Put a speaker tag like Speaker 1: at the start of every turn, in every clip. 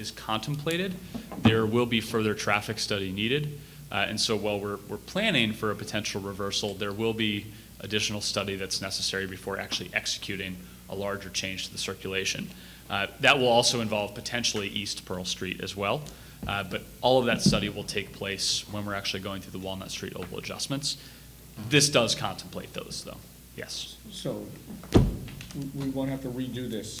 Speaker 1: is contemplated, there will be further traffic study needed. Uh, And so while we're, we're planning for a potential reversal, there will be additional study that's necessary before actually executing a larger change to the circulation. Uh, That will also involve potentially East Pearl Street as well. Uh, But all of that study will take place when we're actually going through the Walnut Street oval adjustments. This does contemplate those, though, yes.
Speaker 2: So we- we won't have to redo this.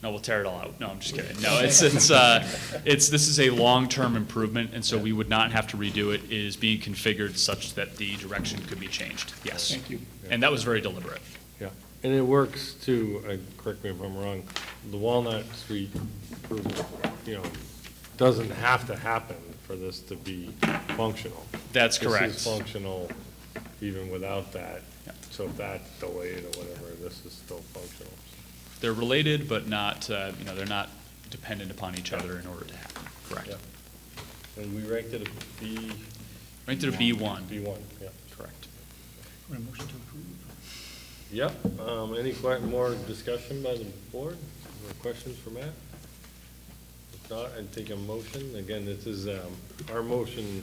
Speaker 1: No, we'll tear it all out. No, I'm just kidding. No, it's, it's, uh, it's, this is a long-term improvement, and so we would not have to redo it. It is being configured such that the direction could be changed, yes.
Speaker 2: Thank you.
Speaker 1: And that was very deliberate.
Speaker 3: Yeah, and it works too, uh, correct me if I'm wrong, the Walnut Street, improvement, you know, doesn't have to happen for this to be functional.
Speaker 1: That's correct.
Speaker 3: This is functional even without that.
Speaker 1: Yep.
Speaker 3: So if that's delayed or whatever, this is still functional.
Speaker 1: They're related, but not, uh, you know, they're not dependent upon each other in order to happen, correct.
Speaker 3: And we ranked it a B.
Speaker 1: Right to the B one,
Speaker 3: B one, yeah.
Speaker 1: correct.
Speaker 3: Yep, um, any que- more discussion by the board? More questions for Matt? If not, I'd take a motion. Again, this is, um, our motion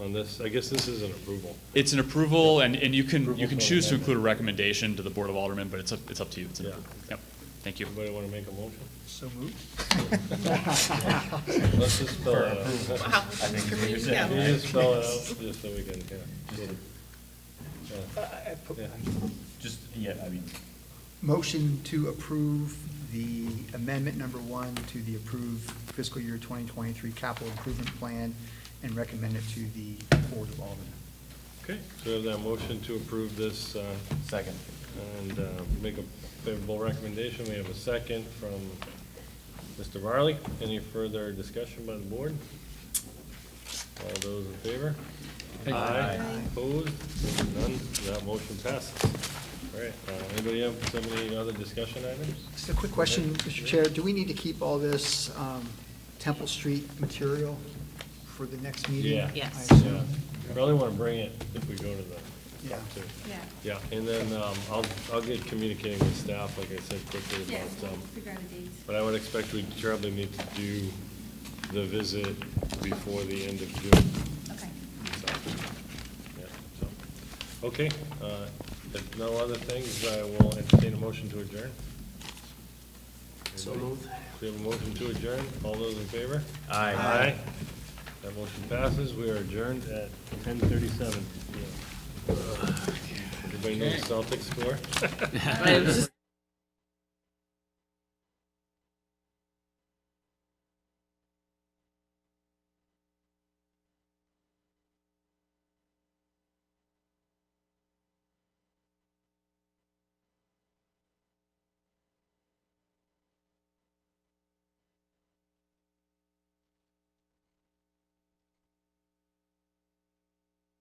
Speaker 3: on this, I guess this is an approval.
Speaker 1: It's an approval, and, and you can, you
Speaker 3: Approval
Speaker 1: can
Speaker 3: for
Speaker 1: choose to
Speaker 3: amendment.
Speaker 1: include a recommendation to the Board of Aldermen, but it's up, it's up to you. It's an
Speaker 3: Yeah.
Speaker 1: approval. Yep, thank you.
Speaker 3: Anybody want to make a motion?
Speaker 4: So moved.
Speaker 3: Let's just spell it out.
Speaker 5: Wow. Kareem, yeah.
Speaker 3: Can you just spell it out, just so we can, yeah. Yeah. Yeah.
Speaker 6: Just, yeah, I mean,
Speaker 4: Motion to approve the amendment number one to the approved fiscal year 2023 capital improvement plan and recommend it to the Board of Aldermen.
Speaker 3: Okay, so we have that motion to approve this, uh,
Speaker 6: second.
Speaker 3: and, uh, make a favorable recommendation. We have a second from Mr. Varley. Any further discussion by the board? All those in favor? Aye. Opposed? None? That motion passes. All right, uh, anybody have so many other discussion items?
Speaker 4: Just a quick question, Mr. Chair, do we need to keep all this um, Temple Street material for the next meeting?
Speaker 3: Yeah.
Speaker 5: Yes.
Speaker 4: I assume?
Speaker 3: Yeah, probably want to bring it if we go to the,
Speaker 4: Yeah.
Speaker 3: top two.
Speaker 7: Yeah.
Speaker 3: Yeah, and then, um, I'll, I'll get communicating with staff, like I said quickly
Speaker 7: Yeah,
Speaker 3: about,
Speaker 7: we'll
Speaker 3: um,
Speaker 7: figure out a date.
Speaker 3: But I would expect we probably need to do the visit before the end of June.
Speaker 7: Okay.
Speaker 3: so, yeah, so. Okay, uh, if no other things, I will entertain a motion to adjourn. So We have a motion to adjourn. All those in favor? Aye. Aye. That motion passes. We are adjourned at ten thirty-seven. Everybody know the Celtics score?
Speaker 5: I was just